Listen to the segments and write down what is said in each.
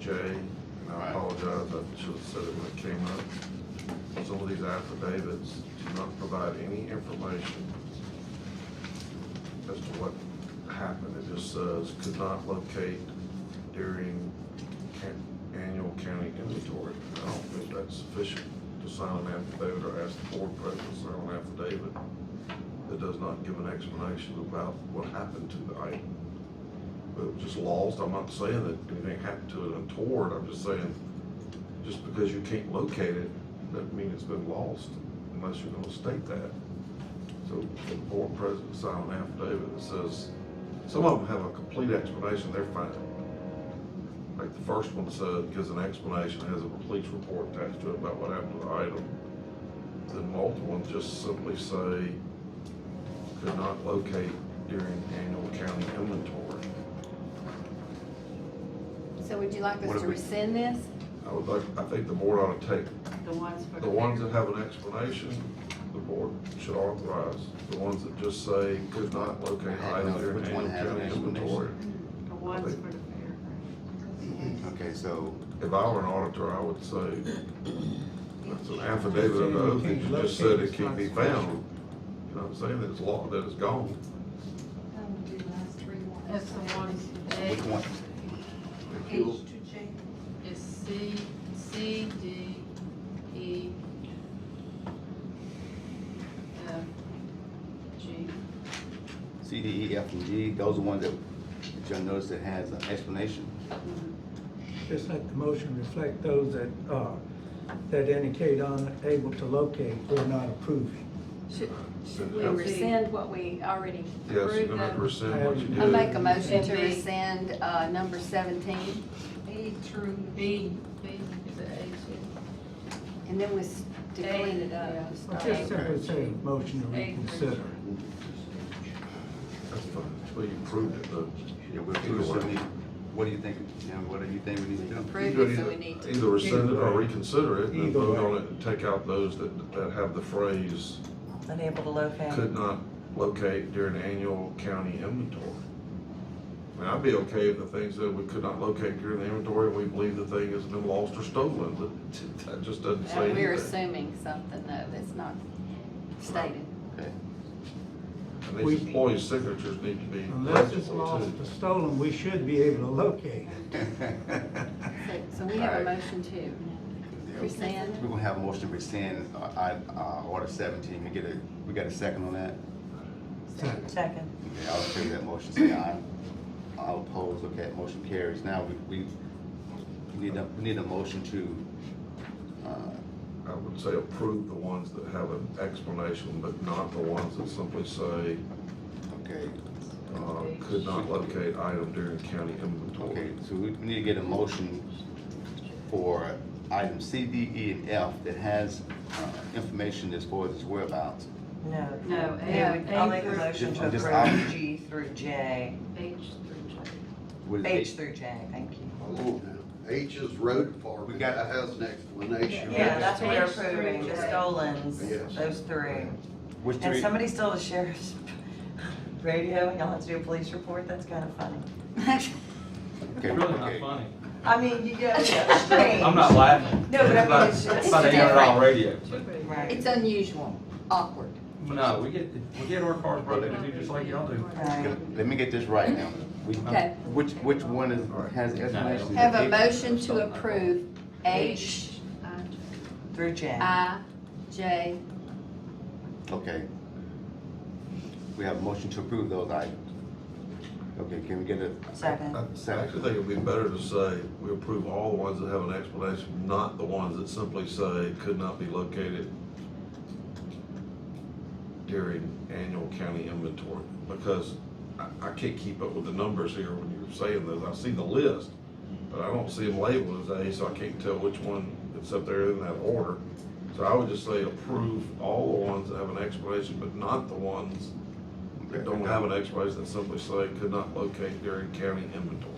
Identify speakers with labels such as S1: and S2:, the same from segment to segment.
S1: Jay, and I
S2: Right.
S1: apologize, I should have said it when it came up. Some of these affidavits do not provide any information as to what happened. It just says could not locate during can- annual county inventory. I don't think that's sufficient to sign an affidavit or ask the board president to sign an affidavit that does not give an explanation about what happened to the item. But it was just lost. I'm not saying that anything happened to it untoward. I'm just saying, just because you can't locate it, doesn't mean it's been lost unless you're gonna state that. So the board president signed an affidavit that says, some of them have a complete explanation, they're fine. Like the first one said, gives an explanation, has a police report attached to it about what happened to the item. Then multiple ones just simply say, could not locate during annual county inventory.
S3: So would you like
S2: What
S3: us
S2: if
S3: to
S2: we-
S3: rescind this?
S1: I would like, I think the board ought to take
S4: The ones for.
S1: The ones that have an explanation, the board should authorize. The ones that just say could not locate
S2: I don't know
S1: items during
S2: which one
S1: annual
S2: has an
S1: county inventory.
S4: The ones for the fair.
S2: Okay, so,
S1: If I were an auditor, I would say that's an affidavit of the oath that you just said it can't be found. You know what I'm saying? It's law that it's gone.
S4: That's the ones,
S2: which one,
S1: If you-
S4: it's C, C, D, E, F, G.
S2: C, D, E, F, and G, those are the ones that, that you'll notice that has an explanation.
S5: Just let the motion reflect those that, uh, that indicate unable to locate or not approving.
S4: Should,
S1: should
S3: We
S1: Yeah.
S3: rescind what we already
S1: Yes, you're
S3: approved
S1: gonna have to
S3: of?
S1: rescind what you
S5: I
S3: I
S1: did.
S3: make a motion to
S4: And B.
S3: rescind, uh, number seventeen,
S4: B through. B, B is an A
S3: and then we, s- to
S4: A,
S3: clean it
S4: yeah.
S3: up. just start
S5: Just
S3: over.
S5: simply say, motion to
S4: Eight.
S5: reconsider.
S1: That's fine. Well, you proved it, though.
S2: Yeah, we'll figure what we, what do you think, you know, what do you think we need to do?
S3: Approve
S1: You could
S3: it, so we
S1: either-
S3: need to-
S1: Either rescind it or reconsider it, and
S5: Either
S1: vote
S5: way.
S1: on it, and take out those that, that have the phrase
S6: unable to locate.
S1: could not locate during annual county inventory. I mean, I'd be okay if the things that we could not locate during the inventory, we believe the thing has been lost or stolen, but that just doesn't say
S3: Uh, We're
S1: anything.
S3: assuming something though that's not stated.
S2: Okay.
S1: And these employees' signatures need to be
S5: Unless it's
S1: legible
S5: lost or
S1: too.
S5: stolen, we should be able to locate.
S3: So, so we have a
S2: Alright.
S3: motion to rescind.
S2: We're gonna have a motion to rescind, uh, I, uh, order seventeen, we get a, we got a second on that?
S6: Second.
S2: Okay, I'll favor that motion, say aye. I'll oppose, okay, motion carries. Now, we, we we need a, we need a motion to, uh,
S1: I would say approve the ones that have an explanation, but not the ones that simply say,
S2: okay,
S1: uh, could not locate item during county
S2: okay,
S1: inventory.
S2: so we we need to get a motion for item C, D, E, and F that has, uh, information as far as its whereabouts.
S6: No.
S4: No,
S6: Yeah,
S4: A-
S6: I'll
S4: A
S6: make a
S4: through-
S6: motion to
S2: Just- just I-
S6: approve G through J,
S4: H through J.
S2: What is
S6: H
S2: it?
S6: through J, thank you.
S7: Oh, H is road department.
S2: We got-
S7: That has an explanation.
S6: Yeah, that's what we're
S4: H through
S6: approving, the
S4: J.
S6: stolens,
S7: Yes.
S6: those three.
S2: Which
S6: And
S2: three-
S6: somebody stole the sheriff's radio, and y'all have to do a police report, that's kind of funny.
S2: Okay,
S8: It's really
S2: okay.
S8: not funny.
S6: I mean, you know, it's strange.
S8: I'm not laughing.
S6: No, but I mean,
S8: not-
S6: it's- it's
S8: not even
S3: different.
S8: on radio.
S6: Right,
S3: It's unusual, awkward.
S8: No, we get, we get our cars brought in and do just like y'all do.
S6: right.
S2: Let me get this right now. We-
S3: Okay.
S2: Which, which one is, has explanation?
S3: Have a
S2: H-
S3: motion to approve H,
S4: I, J.
S6: Through J.
S4: Uh,
S3: I, J,
S2: Okay. We have a motion to approve those items. Okay, can we get a
S6: Second.
S1: I actually think it'd be better to say, we approve all the ones that have an explanation, not the ones that simply say could not be located during annual county inventory, because I, I can't keep up with the numbers here when you're saying this. I see the list, but I don't see them labeled as A, so I can't tell which one, except they're in that order. So I would just say approve all the ones that have an explanation, but not the ones that don't have an explanation that simply say could not locate during county inventory.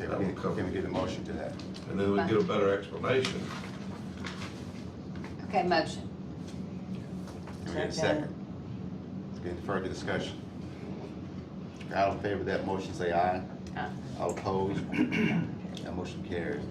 S2: Okay, Can can we get a motion to that?
S1: And then we get a better explanation.
S3: okay, motion.
S2: Can we get a
S6: Second.
S2: second? Any further discussion? All in favor of that motion, say aye.
S3: Aye.
S2: All opposed? That motion carries.